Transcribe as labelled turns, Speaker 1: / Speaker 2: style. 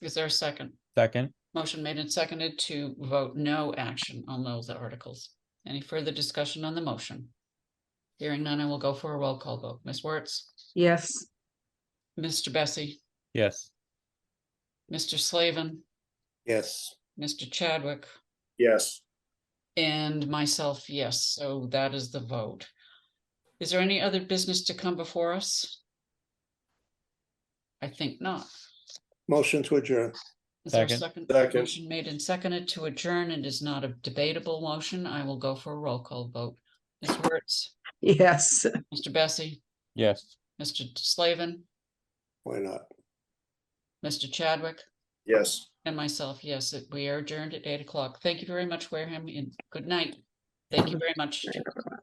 Speaker 1: Is there a second?
Speaker 2: Second.
Speaker 1: Motion made and seconded to vote no action on those articles. Any further discussion on the motion? Hearing none, I will go for a roll call vote. Ms. Wertz,
Speaker 3: yes,
Speaker 1: Mr. Bessie,
Speaker 2: Yes.
Speaker 1: Mr. Slavin,
Speaker 4: Yes.
Speaker 1: Mr. Chadwick,
Speaker 4: Yes.
Speaker 1: and myself, yes, so that is the vote. Is there any other business to come before us? I think not.
Speaker 4: Motion to adjourn.
Speaker 1: Is there a second?
Speaker 2: Second.
Speaker 4: Second.
Speaker 1: Motion made and seconded to adjourn and is not a debatable motion. I will go for a roll call vote. Ms. Wertz,
Speaker 3: yes.
Speaker 1: Mr. Bessie,
Speaker 2: Yes.
Speaker 1: Mr. Slavin,
Speaker 4: Why not?
Speaker 1: Mr. Chadwick,
Speaker 4: Yes.
Speaker 1: and myself, yes, it- we are adjourned at eight o'clock. Thank you very much, Wareham, and good night. Thank you very much.